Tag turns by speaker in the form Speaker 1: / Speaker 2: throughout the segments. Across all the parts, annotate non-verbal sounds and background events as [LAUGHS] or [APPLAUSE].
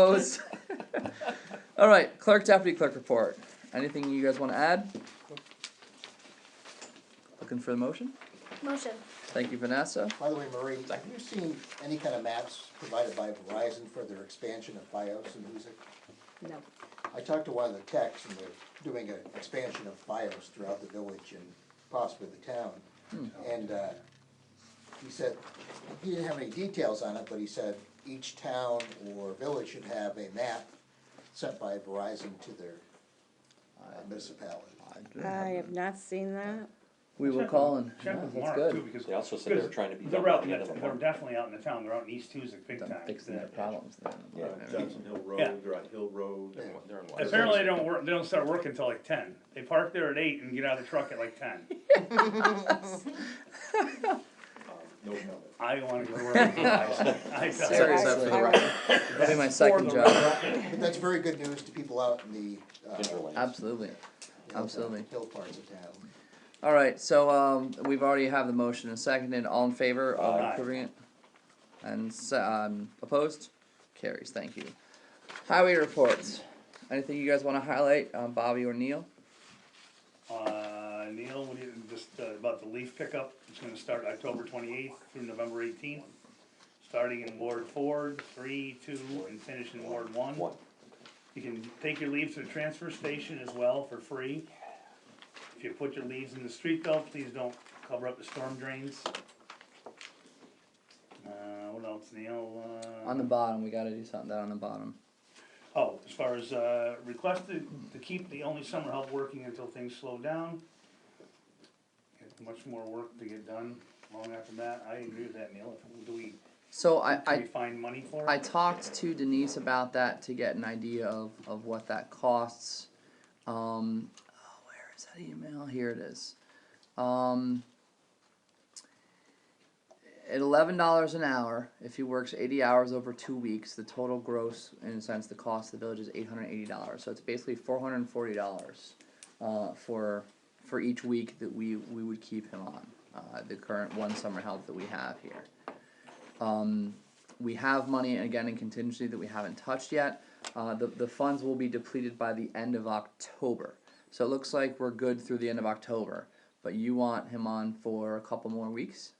Speaker 1: Opposed? All right, clerk, deputy clerk report. Anything you guys wanna add? Looking for the motion?
Speaker 2: Motion.
Speaker 1: Thank you, Vanessa.
Speaker 3: By the way, Marie, have you seen any kind of maps provided by Verizon for their expansion of BIOS and music?
Speaker 4: No.
Speaker 3: I talked to one of the techs and they're doing an expansion of BIOS throughout the village and possibly the town. And, uh, he said, he didn't have any details on it, but he said each town or village should have a map sent by Verizon to their uh, municipality.
Speaker 4: I
Speaker 2: Mm-hmm.
Speaker 4: have not seen that.
Speaker 1: We will call and, yeah,
Speaker 5: Check with
Speaker 1: that's
Speaker 5: Mark too,
Speaker 1: good.
Speaker 5: because.
Speaker 6: They also said they were
Speaker 5: because
Speaker 6: trying to be
Speaker 5: They're
Speaker 6: done
Speaker 5: out,
Speaker 6: by
Speaker 5: in
Speaker 6: the end of
Speaker 5: the-
Speaker 6: the
Speaker 5: they're
Speaker 6: month.
Speaker 5: definitely out in the town, they're out in East Tuesday big time.
Speaker 1: Done fixing their problems
Speaker 6: Yeah.
Speaker 1: then.
Speaker 7: Johnson Hill
Speaker 5: Yeah.
Speaker 7: Road, they're on Hill Road.
Speaker 3: Yeah.
Speaker 6: They're in Washington.
Speaker 5: Apparently they don't work, they don't start working till like ten, they park there at eight and get out of the truck at like
Speaker 1: [LAUGHS]
Speaker 5: ten,
Speaker 7: Um, No comment.
Speaker 5: I wanna go to
Speaker 1: [LAUGHS]
Speaker 5: work. I- I-
Speaker 1: Sorry, Seth, for the
Speaker 4: I-
Speaker 1: record. That'll be my second
Speaker 5: For the
Speaker 1: job.
Speaker 3: But that's very good news to people out in the, uh,
Speaker 6: Interlinks.
Speaker 1: Absolutely.
Speaker 3: hill-
Speaker 1: Absolutely.
Speaker 3: Hill parts of town.
Speaker 1: All right, so, um, we've already have the motion and seconded. All in favor of
Speaker 5: Aye.
Speaker 1: approving it? And, se- um, opposed? Carries, thank you. Highway reports. Anything you guys wanna highlight, um, Bobby or Neil?
Speaker 5: Uh, Neil, what do you, just uh, about the leaf pickup, it's gonna start October twenty-eighth through November eighteenth. Starting in Ward four, three, two, and finish in Ward one.
Speaker 6: One.
Speaker 5: You can take your leaves to the transfer station as well for free. If you put your leaves in the street though, please don't cover up the storm drains. Uh, what else, Neil, uh?
Speaker 1: On the bottom, we gotta do something down on the bottom.
Speaker 5: Oh, as far as, uh, requested to keep the only summer help working until things slow down. It's Much more work to get done long after that, I agree with that, Neil, If- do we,
Speaker 1: So I,
Speaker 5: can
Speaker 1: I,
Speaker 5: we find money for it?
Speaker 1: I talked to Denise about that to get an idea of, of what that costs. Um, oh, where is that email? Here it is. Um, at eleven dollars an hour, if he works eighty hours over two weeks, the total gross, in a sense, the cost of the village is eight hundred eighty dollars. So it's basically four hundred and forty dollars uh, for for each week that we we would keep him on uh, the current one summer help that we have here. Um, we have money again in contingency that we haven't touched yet. Uh, the, the funds will be depleted by the end of October. So it looks like we're good through the end of October. But you want him on for a couple more weeks?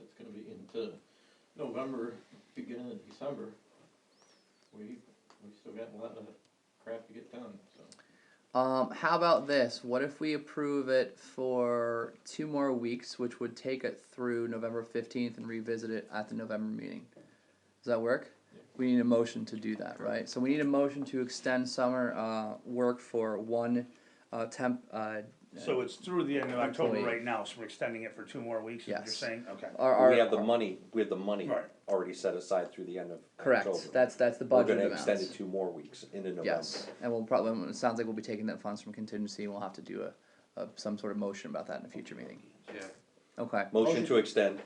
Speaker 8: It's gonna be into November, beginning of December. We, we still got a lot of crap to get done, so.
Speaker 1: Um, how about this? What if we approve it for two more weeks, which would take it through November 15th and revisit it at the November meeting? Does that work? We need a motion to do that, right? So we need a motion to extend summer uh, work for one uh, temp. Uh,
Speaker 5: So it's through the end of October
Speaker 1: Employee.
Speaker 5: right now, so we're extending it for two more weeks, is what you're
Speaker 1: Yes.
Speaker 5: saying, okay.
Speaker 1: our, our,
Speaker 6: We have the money, we have the money
Speaker 5: Right.
Speaker 6: already set aside through the end of
Speaker 1: Correct.
Speaker 6: October.
Speaker 1: That's that's the
Speaker 6: We're
Speaker 1: budget
Speaker 6: gonna
Speaker 1: amount.
Speaker 6: extend it two more weeks into November.
Speaker 1: yes, and we'll probably. It sounds like we'll be taking that funds from contingency. and We'll have to do a, a some sort of motion about that in a future meeting.
Speaker 7: Yeah.
Speaker 1: Okay.
Speaker 6: Motion to extend,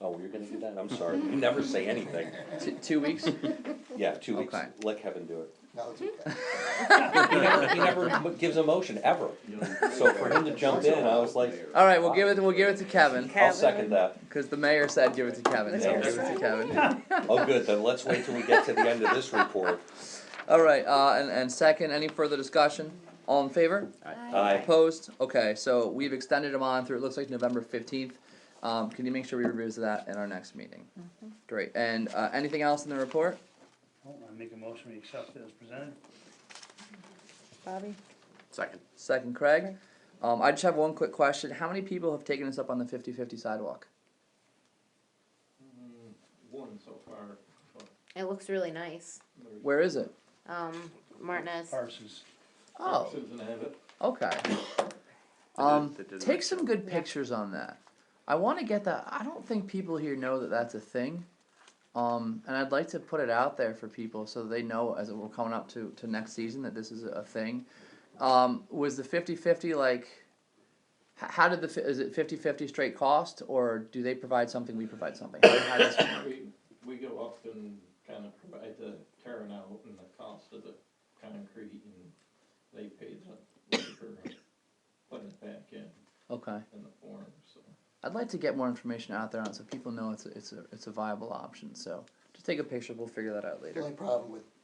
Speaker 6: oh, you're gonna do that, I'm sorry, you never say anything,
Speaker 1: T- two weeks.
Speaker 6: yeah, two weeks,
Speaker 1: Okay.
Speaker 6: let Kevin do it.
Speaker 3: No, it's okay.
Speaker 6: He never, he never m- gives a motion, ever, [LAUGHS] so for him to jump in, I was like, "Ah."
Speaker 1: All right. We'll give it. We'll give it to Kevin
Speaker 6: I'll second that.
Speaker 1: because the mayor said give it to Kevin. So we'll give it to Kevin.
Speaker 6: Oh, good, then let's wait till we get to the end of this report.
Speaker 1: All right. Uh, and and second, any further discussion? All in favor?
Speaker 6: Aye.
Speaker 1: Opposed? Okay, so we've extended them on through, it looks like November fifteenth. Um, can you make sure we revisit that in our next meeting? Great, and, uh, anything else in the report?
Speaker 5: Well, Oh, I make a motion, we accept it as presented.
Speaker 4: Bobby?
Speaker 1: Second. Second, Craig. Um, I just have one quick question. How many people have taken us up on the fifty-fifty sidewalk?
Speaker 8: Mm, One so far, but
Speaker 2: It looks really nice.
Speaker 8: there's.
Speaker 1: Where is it?
Speaker 2: Um, Martinez.
Speaker 5: Parsons,
Speaker 1: Oh,
Speaker 8: Susan have it.
Speaker 1: okay. Um, take some good pictures on that. I wanna get that, I don't think people here know that that's a thing. Um, and I'd like to put it out there for people so they know as we're coming up to, to next season that this is a thing. Um, was the 50-50 like, h- how did the, fi- is it 50-50 straight cost or do they provide something, we provide something? How- how does-
Speaker 8: We, we go up and kind of provide the tearing out and the cost of the concrete and they pay the labor and putting it back in,
Speaker 1: okay.
Speaker 8: in the form, so.
Speaker 1: I'd like to get more information out there on it so people know it's a, it's a, it's a viable option, so. Just take a picture. We'll figure that out
Speaker 3: The
Speaker 1: later.
Speaker 3: only [LAUGHS] problem with